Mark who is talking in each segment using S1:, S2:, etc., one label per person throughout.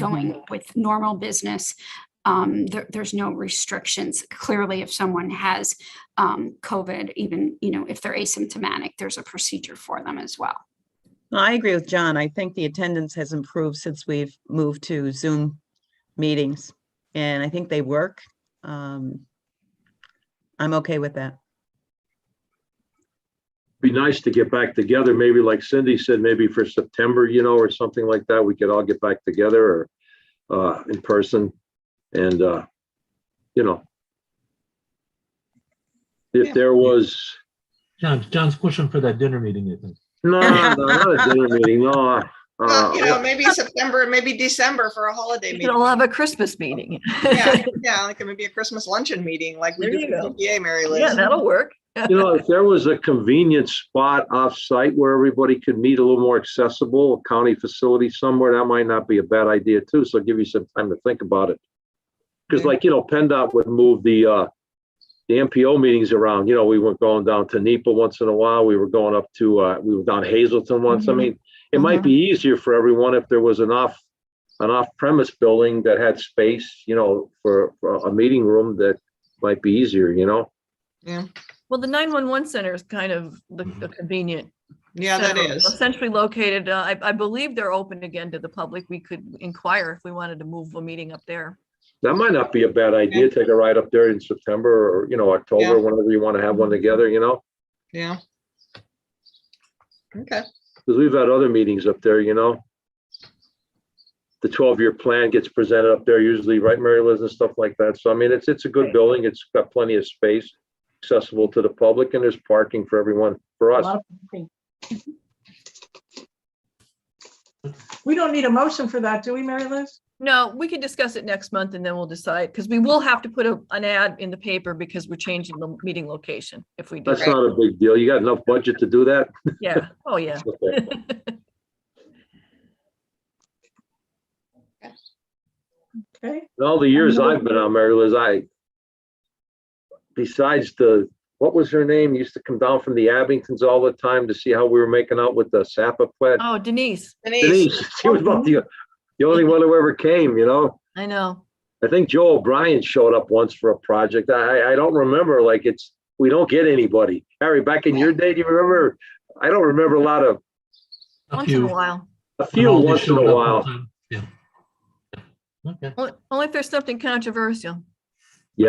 S1: going with normal business. Um, there, there's no restrictions. Clearly, if someone has um, COVID, even, you know, if they're asymptomatic, there's a procedure for them as well.
S2: I agree with John. I think the attendance has improved since we've moved to Zoom meetings, and I think they work. Um, I'm okay with that.
S3: be nice to get back together, maybe like Cindy said, maybe for September, you know, or something like that, we could all get back together or uh, in person and, uh, you know. If there was,
S4: John, John's pushing for that dinner meeting, I think.
S3: no, no, not a dinner meeting, no.
S5: Well, you know,
S3: uh,
S5: maybe September, maybe December for a holiday
S6: We
S5: meeting.
S6: will have a Christmas meeting.
S5: Yeah, yeah, like maybe a Christmas luncheon meeting like we
S6: There
S5: do
S6: you
S5: for
S6: go.
S5: PTA, Mary
S6: Yeah,
S5: Liz.
S6: that'll work.
S3: You know, if there was a convenient spot off-site where everybody could meet a little more accessible, a county facility somewhere, that might not be a bad idea too. So give you some time to think about it. Because like, you know, PennDOT would move the, uh, the MPO meetings around, you know, we were going down to NEPA once in a while, we were going up to, uh, we were down Hazelton once. I
S2: Mhm.
S3: mean, it might be easier for everyone if there was an off, an off-premise building that had space, you know, for, for a meeting room that might be easier, you know?
S6: Well, the 911 center is kind of the the convenient.
S5: Mm-hmm. Yeah, that
S6: center,
S5: is.
S6: Essentially located, uh, I, I believe they're open again to the public. We could inquire if we wanted to move a meeting up there.
S3: That might not be a bad idea, take a ride up there in September or, you know, October,
S5: Yeah.
S3: whenever you want to have one together, you know?
S5: Yeah. Okay,
S3: Because we've had other meetings up there, you know? The twelve-year plan gets presented up there usually, right, Mary Liz, and stuff like that. So I mean, it's, it's a good building, it's got plenty of space, accessible to the public, and there's parking for everyone, for
S7: A
S3: us.
S7: lot of parking. We don't need a motion for that, do we, Mary Liz?
S6: No, we could discuss it next month and then we'll decide, because we will have to put a- an ad in the paper because we're changing the meeting location if we do.
S3: That's
S6: that.
S3: not a big deal. You got enough budget to do that?
S6: Yeah, oh, yeah.
S3: Okay.
S7: Okay,
S3: In all the years I've been on Mary Liz, I, besides the, what was her name, used to come down from the Abingtons all the time to see how we were making out with the Sapa plant.
S6: Oh, Denise,
S5: Denise,
S3: Denise, she was about the, the only one who ever came, you know?
S6: I know.
S3: I think Joe O'Brien showed up once for a project. I, I don't remember, like, it's, we don't get anybody. Harry, back in your day, do you remember? I don't remember a lot of,
S4: A
S6: Once in a
S4: few.
S6: while.
S3: a few
S4: Rinaldi
S3: once in
S4: showed up
S3: a
S4: one
S3: while.
S4: time. Yeah. Yeah. Okay.
S6: Only only if there's something controversial.
S4: We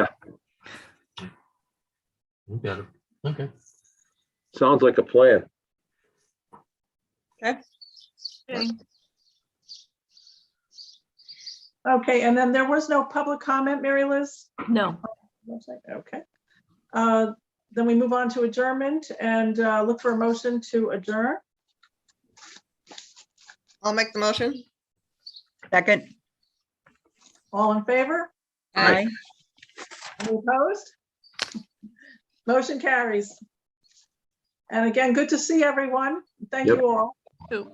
S4: got it. Okay.
S3: Sounds like a plan.
S6: Okay.
S7: okay, and then there was no public comment, Mary Liz?
S6: No,
S7: Okay. Uh, Then we move on to adjournment and uh, look for a motion to adjourn.
S5: I'll make the motion.
S2: Second.
S7: All in favor?
S3: Aye.
S7: Any opposed? Motion carries. And again, good to see everyone. Thank
S3: Yep.
S7: you all.
S6: two.